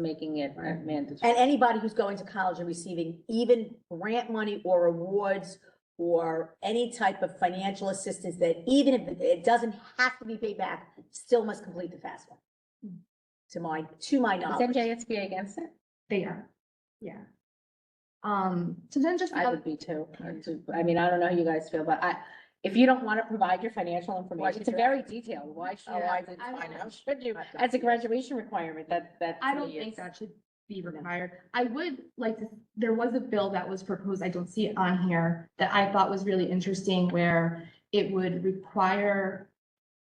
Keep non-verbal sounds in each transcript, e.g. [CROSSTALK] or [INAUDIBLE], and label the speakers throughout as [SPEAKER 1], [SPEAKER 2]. [SPEAKER 1] making it
[SPEAKER 2] Right.
[SPEAKER 1] mandatory.
[SPEAKER 2] And anybody who's going to college and receiving even grant money or awards or any type of financial assistance that even if it doesn't have to be paid back, still must complete the FAFSA. To my, to my
[SPEAKER 1] Is
[SPEAKER 2] knowledge.
[SPEAKER 1] NJSBA against it?
[SPEAKER 3] They are, yeah. Um, so then just,
[SPEAKER 1] I
[SPEAKER 3] another-
[SPEAKER 1] would be too. I'd too. I mean, I don't know how you guys feel, but I, if you don't want to provide your financial information, it's
[SPEAKER 2] should-
[SPEAKER 1] very detailed. Why should,
[SPEAKER 2] Oh,
[SPEAKER 3] Yeah,
[SPEAKER 1] why is it
[SPEAKER 3] I don't
[SPEAKER 1] fine?
[SPEAKER 3] know.
[SPEAKER 1] How should you? As a graduation requirement, that, that.
[SPEAKER 3] I
[SPEAKER 1] to
[SPEAKER 3] don't
[SPEAKER 1] me
[SPEAKER 3] think
[SPEAKER 1] is-
[SPEAKER 3] that should be required. I would like to, there was a bill that was proposed, I don't see it on here, that I thought was really interesting where it would require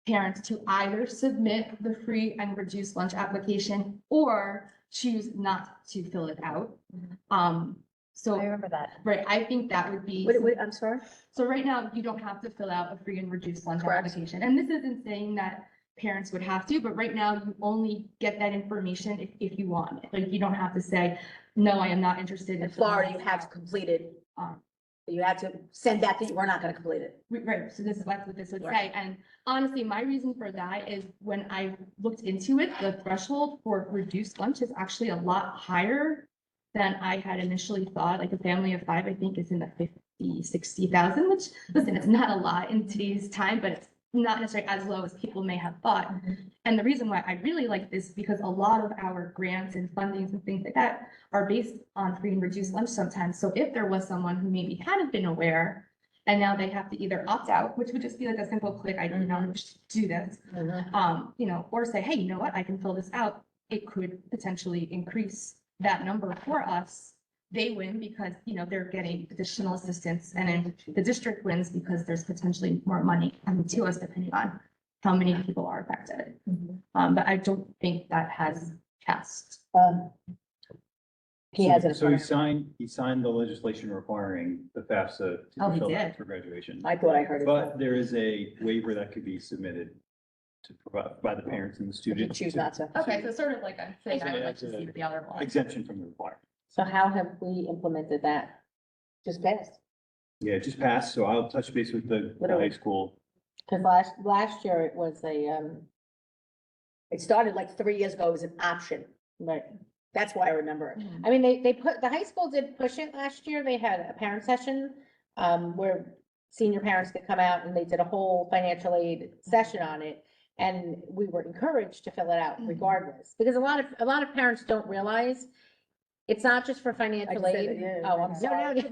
[SPEAKER 3] parents to either submit the free and reduced lunch application or choose not to fill it out.
[SPEAKER 4] Mm-hmm.
[SPEAKER 3] Um,
[SPEAKER 4] I
[SPEAKER 3] so,
[SPEAKER 4] remember that.
[SPEAKER 3] right, I think that would be.
[SPEAKER 2] What, what, I'm sorry?
[SPEAKER 3] So right now, you don't have to fill out a free and reduced lunch
[SPEAKER 2] Correct.
[SPEAKER 3] application. And this isn't saying that parents would have to, but right now you only get that information if, if you want. it. Like you don't have to say, no, I am not interested.
[SPEAKER 2] In
[SPEAKER 3] filling
[SPEAKER 2] Florida,
[SPEAKER 3] this
[SPEAKER 2] you have to
[SPEAKER 3] out."
[SPEAKER 2] complete it.
[SPEAKER 3] Um,
[SPEAKER 2] You have to send back that we're not gonna complete it.
[SPEAKER 3] we- Right, so this is that's what this would say.
[SPEAKER 2] Right.
[SPEAKER 3] And honestly, my reason for that is when I looked into it, the threshold for reduced lunch is actually a lot higher than I had initially thought. Like a family of five, I think is in the fifty, sixty thousand, which listen, it's not a lot in today's time, but it's not necessarily as low as people may have thought. And the reason why I really like this, because a lot of our grants and fundings and things like that are based on free and reduced lunch sometimes. So if there was someone who maybe hadn't been aware, and now they have to either opt out, which would just be like a simple click, I do not wish to do this,
[SPEAKER 1] Mm-hmm.
[SPEAKER 3] um, you know, or say, hey, you know what, I can fill this out. It could potentially increase that number for us. They win because, you know, they're getting additional assistance and then the district wins because there's potentially more money coming to us depending on how many people are affected. Um, but I don't think that has passed.
[SPEAKER 2] Um, He has it. in
[SPEAKER 5] So he
[SPEAKER 2] front of him.
[SPEAKER 5] signed, he signed the legislation requiring the FAFSA
[SPEAKER 3] Oh, he
[SPEAKER 5] to be filled
[SPEAKER 3] did.
[SPEAKER 5] out for graduation.
[SPEAKER 2] I thought I heard it.
[SPEAKER 5] But there is a waiver that could be submitted to provide by the parents and the
[SPEAKER 2] If you
[SPEAKER 5] students.
[SPEAKER 2] choose not to.
[SPEAKER 3] Okay, so sort of like I'm saying, I would like to see the other one.
[SPEAKER 5] Exemption from the requirement.
[SPEAKER 1] So how have we implemented that?
[SPEAKER 2] Just passed.
[SPEAKER 5] Yeah, it just passed, so I'll touch base with the the high school.
[SPEAKER 1] Because last, last year it was a, um,
[SPEAKER 2] It started like three years ago as an option.
[SPEAKER 1] right.
[SPEAKER 2] That's why I remember it.
[SPEAKER 3] Mhm.
[SPEAKER 1] I mean, they, they put, the high school did push it last year. They had a parent session, um, where senior parents could come out and they did a whole financial aid session on it. And we were encouraged to fill it out
[SPEAKER 2] Mm-hmm.
[SPEAKER 3] Mhm.
[SPEAKER 1] regardless, because a lot of, a lot of parents don't realize it's not just for financial
[SPEAKER 2] said it,
[SPEAKER 1] aid.
[SPEAKER 2] yeah,
[SPEAKER 1] Oh,
[SPEAKER 2] I
[SPEAKER 1] I'm
[SPEAKER 2] know.
[SPEAKER 1] sorry.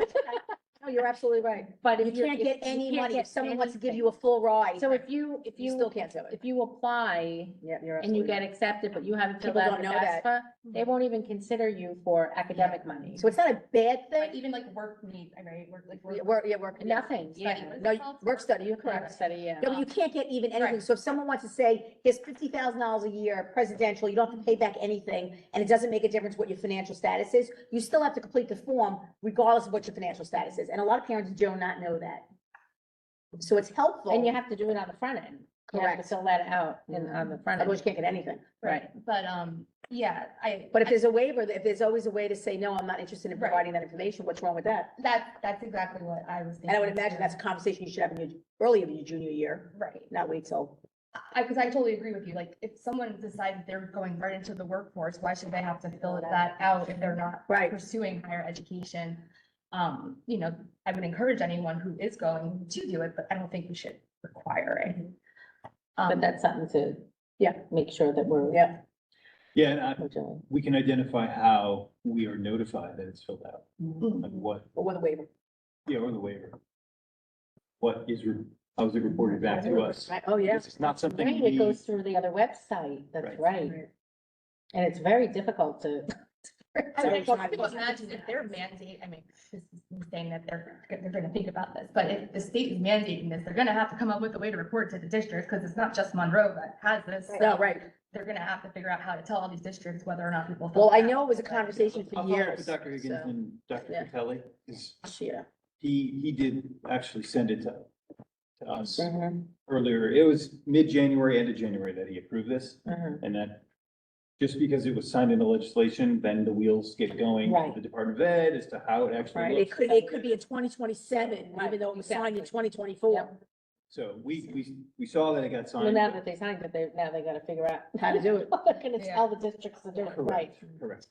[SPEAKER 2] No, you're absolutely right.
[SPEAKER 1] [LAUGHS] But if
[SPEAKER 2] You
[SPEAKER 1] you're-
[SPEAKER 2] can't
[SPEAKER 1] if
[SPEAKER 2] get
[SPEAKER 1] you
[SPEAKER 2] any
[SPEAKER 1] can't
[SPEAKER 2] money. If
[SPEAKER 1] get
[SPEAKER 2] someone wants to give
[SPEAKER 1] anything.
[SPEAKER 2] you a full ride,
[SPEAKER 1] So if you, if
[SPEAKER 2] you still
[SPEAKER 1] you,
[SPEAKER 2] can't do it.
[SPEAKER 1] if you apply
[SPEAKER 2] Yeah, you're
[SPEAKER 1] and you
[SPEAKER 2] absolutely
[SPEAKER 1] get
[SPEAKER 2] right.
[SPEAKER 1] accepted, but you haven't filled
[SPEAKER 2] People
[SPEAKER 1] out the
[SPEAKER 2] don't know that. Mm-hmm.
[SPEAKER 1] FAFSA, they won't even consider you for academic money.
[SPEAKER 2] So it's not a bad
[SPEAKER 3] But
[SPEAKER 2] thing.
[SPEAKER 3] even like work need, right, work like. work-
[SPEAKER 2] Yeah, Work, yeah, work.
[SPEAKER 1] Nothing, yeah.
[SPEAKER 3] Study.
[SPEAKER 2] No, you- work study, you're
[SPEAKER 1] Correct,
[SPEAKER 2] correct.
[SPEAKER 1] study, yeah.
[SPEAKER 2] No, but you can't get even anything.
[SPEAKER 3] Right.
[SPEAKER 2] So if someone wants to say, here's fifty thousand dollars a year, presidential, you don't have to pay back anything, and it doesn't make a difference what your financial status is, you still have to complete the form regardless of what your financial status is. And a lot of parents do not know that. So it's helpful.
[SPEAKER 1] And you have to do it on the front end. You have to
[SPEAKER 2] Correct. Mm-hmm.
[SPEAKER 1] fill that out and on the front
[SPEAKER 2] Otherwise,
[SPEAKER 1] end.
[SPEAKER 2] you can't get anything.
[SPEAKER 1] Right.
[SPEAKER 3] But, um, yeah, I.
[SPEAKER 2] But if there's a waiver, if there's always a way to say, no, I'm not interested in
[SPEAKER 3] Right.
[SPEAKER 2] providing that information, what's wrong with that?
[SPEAKER 3] That, that's exactly what I was thinking.
[SPEAKER 2] And I would imagine
[SPEAKER 3] too.
[SPEAKER 2] that's a conversation you should have in your, early in your junior year,
[SPEAKER 3] Right.
[SPEAKER 2] not wait till.
[SPEAKER 3] I, because I totally agree with you. Like, if someone decides they're going right into the workforce, why should they have to fill that out if they're not
[SPEAKER 2] Right.
[SPEAKER 3] pursuing higher education? Um, you know, I would encourage anyone who is going to do it, but I don't think we should require it.
[SPEAKER 1] But
[SPEAKER 3] Um,
[SPEAKER 1] that's something to,
[SPEAKER 2] Yeah.
[SPEAKER 1] make sure that we're,
[SPEAKER 2] Yeah.
[SPEAKER 5] Yeah, and I,
[SPEAKER 1] we're doing.
[SPEAKER 5] we can identify how we are notified that it's filled out,
[SPEAKER 3] mm,
[SPEAKER 5] like what,
[SPEAKER 2] Or with a waiver.
[SPEAKER 5] yeah, or the waiver. What is, re- how is it reported back to us?
[SPEAKER 2] Right, oh, yeah.
[SPEAKER 5] Because It's not something
[SPEAKER 1] Right, it
[SPEAKER 5] we,
[SPEAKER 1] goes through the other website, that's
[SPEAKER 5] Right.
[SPEAKER 1] right. And it's very difficult to.
[SPEAKER 3] I
[SPEAKER 2] Sorry,
[SPEAKER 3] mean,
[SPEAKER 2] it's not-
[SPEAKER 3] can you imagine if their mandate, I mean, this is insane that they're, they're gonna think about this, but if the state is mandating this, they're gonna have to come up with a way to report to the districts, because it's not just Monroe that has this.
[SPEAKER 2] No, right.
[SPEAKER 3] They're gonna have to figure out how to tell all these districts whether or not people. filled
[SPEAKER 2] Well, I
[SPEAKER 3] out.
[SPEAKER 2] know it was a conversation for
[SPEAKER 5] I'll follow up
[SPEAKER 2] years.
[SPEAKER 5] with Dr. Higgins
[SPEAKER 2] so-
[SPEAKER 5] and Dr.
[SPEAKER 2] Yeah.
[SPEAKER 5] Kelly, is
[SPEAKER 2] Yeah.
[SPEAKER 5] he, he did actually send it to, to us earlier. It was mid-January, end of January that he approved this. And that, just because it was signed into legislation, then the wheels get going
[SPEAKER 1] Right.
[SPEAKER 5] for the Department of Ed as to how it actually
[SPEAKER 1] Right.
[SPEAKER 5] looks.
[SPEAKER 2] It could, it could be in twenty twenty-seven, even though it was signed in
[SPEAKER 1] Right,
[SPEAKER 2] twenty twenty-four.
[SPEAKER 1] Yep.
[SPEAKER 5] So we, we, we saw that it got
[SPEAKER 1] Well,
[SPEAKER 5] signed.
[SPEAKER 1] now that they signed it, they, now they gotta figure out
[SPEAKER 2] How to do it.
[SPEAKER 1] [LAUGHS] How they're gonna
[SPEAKER 4] Yeah.
[SPEAKER 1] tell the districts to do it right.
[SPEAKER 5] Correct, correct.